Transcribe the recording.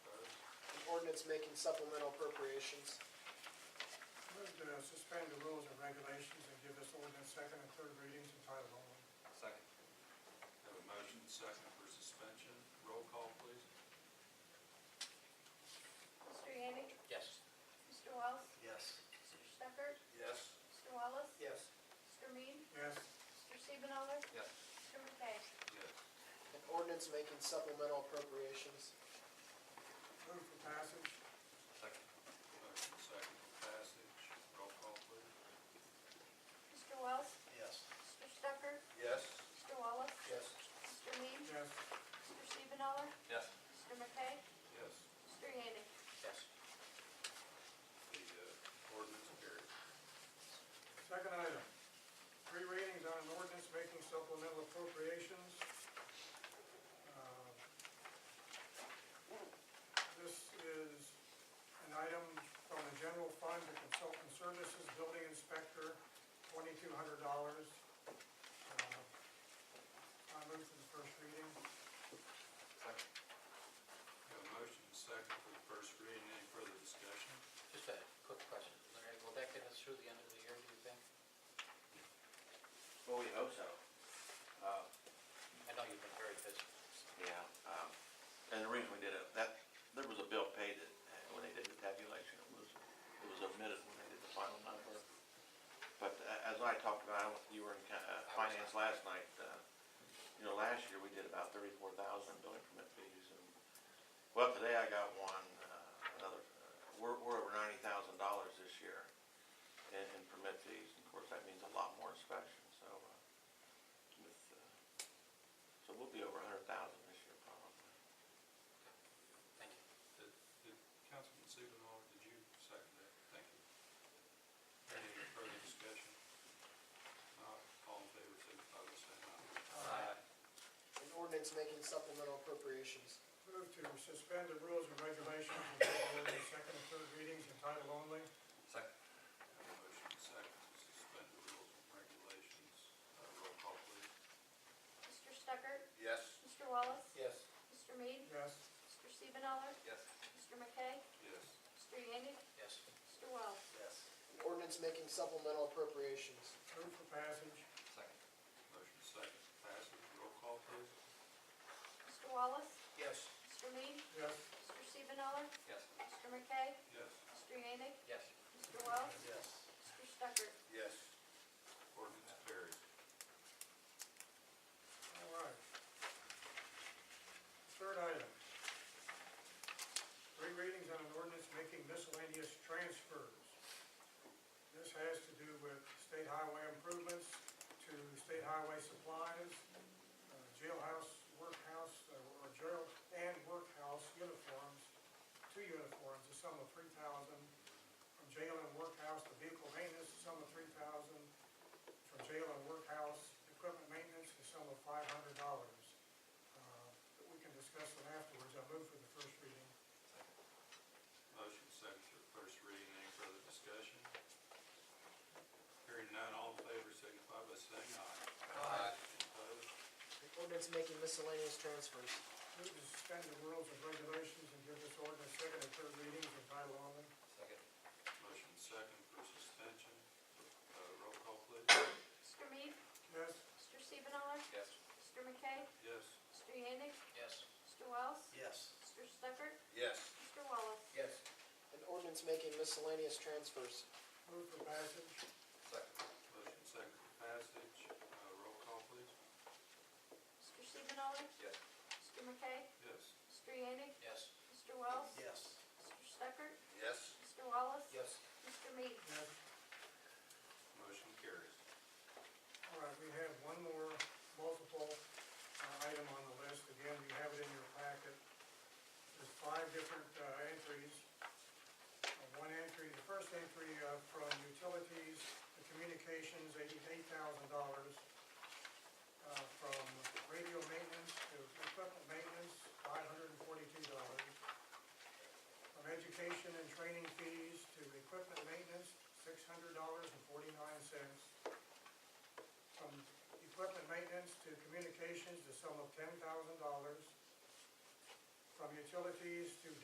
ordinance making supplemental appropriations. Move to suspend the rules and regulations and give this ordinance second and third readings in title only. Second. Have a motion second for suspension. Roll call, please. Mr. Yannick? Yes. Mr. Wells? Yes. Mr. Stucker? Yes. Mr. Wallace? Yes. Mr. Mead? Yes, Mr. Siebenthaler? Yes. Mr. McKay? Yes. An ordinance making supplemental appropriations. move for passage. Second. Motion second for passage. Roll call, please. Mr. Wells? Yes. Mr. Stucker? Yes. Mr. Wallace? Yes. Mr. Mead? Yes, Mr. Siebenthaler? Yes. Mr. McKay? Yes. Mr. Yannick? Yes. The uh, ordinance carries. second item. Three readings on an ordinance making supplemental appropriations. Uh, This is an item from the general fund to consultant services, building inspector, twenty-two hundred dollars. Uh, I move for the first reading. Second. Have a motion second for the first reading. Any further discussion? Just a quick question, Larry, will that get us through the end of the year, do you think? Well, we hope so. Uh, I know you've been very busy. Yeah, um, and the reason we did it, that, there was a bill paid that, uh, when they did the tabulation, it was, it was omitted when they did the final number. But a- as I talked about, you were in kind of finance last night, uh, you know, last year we did about thirty-four thousand in building permit fees and, well, today I got one, uh, another, uh, we're, we're over ninety thousand dollars this year in, in permit fees. And Of course, that means a lot more inspections, so, uh, with, uh, so we'll be over a hundred thousand this year probably. Thank you. Did- did Councilman Siegenhoff, did you second that? Thank you. Any further discussion? Not All in favor, signify by saying aye. An ordinance making supplemental appropriations. Move to suspend the rules and regulations and give the ordinance second and third readings in title only. Second. Have a motion second to suspend the rules and regulations. Uh, Roll call, please. Mr. Stucker? Yes. Mr. Wallace? Yes. Mr. Mead? Yes, Mr. Siebenthaler? Yes. Mr. McKay? Yes. Mr. Yannick? Yes. Mr. Wells? Yes. An ordinance making supplemental appropriations. move for passage. Second. Motion second to passage. Roll call, please. Mr. Wallace? Yes. Mr. Mead? Yes, Mr. Siebenthaler? Yes. Mr. McKay? Yes. Mr. Yannick? Yes. Mr. Wells? Yes. Mr. Stucker? Yes. Ordinance carries. all right. Third item. Three readings on an ordinance making miscellaneous transfers. This has to do with state highway improvements to state highway supplies, uh, jailhouse, workhouse, uh, or jail and workhouse uniforms, two uniforms, a sum of three thousand. From jail and workhouse to vehicle maintenance, a sum of three thousand. for jail and workhouse equipment maintenance, the sum of five hundred dollars. Uh, We can discuss them afterwards, I move for the first reading. Motion second for first reading. Any further discussion? Hearing none, all in favor signify by saying aye. Aye. Opposed? An ordinance making miscellaneous transfers. Move to suspend the rules and regulations and give this ordinance second and third readings in title only. Second. Motion second for suspension. Uh, Roll call, please. Mr. Mead? Yes, Mr. Siebenthaler? Yes. Mr. McKay? Yes. Mr. Yannick? Yes. Mr. Wells? Yes. Mr. Stucker? Yes. Mr. Wallace? Yes. An ordinance making miscellaneous transfers. move for passage. Second. Motion second for passage. Uh, Roll call, please. Mr. Siebenthaler? Yes. Mr. McKay? Yes. Mr. Yannick? Yes. Mr. Wells? Yes. Mr. Stucker? Yes. Mr. Wallace? Yes. Mr. Mead? Yes, Motion carries. all right, we have one more multiple uh, item on the list. Again, you have it in your packet. There's five different uh, entries. Uh, One entry, the first entry uh, from utilities to communications, eighty-eight thousand dollars. Uh, From radio maintenance to equipment maintenance, five hundred and forty-two dollars. From education and training fees to equipment maintenance, six hundred dollars and forty-nine cents. From equipment maintenance to communications, the sum of ten thousand dollars. From utilities to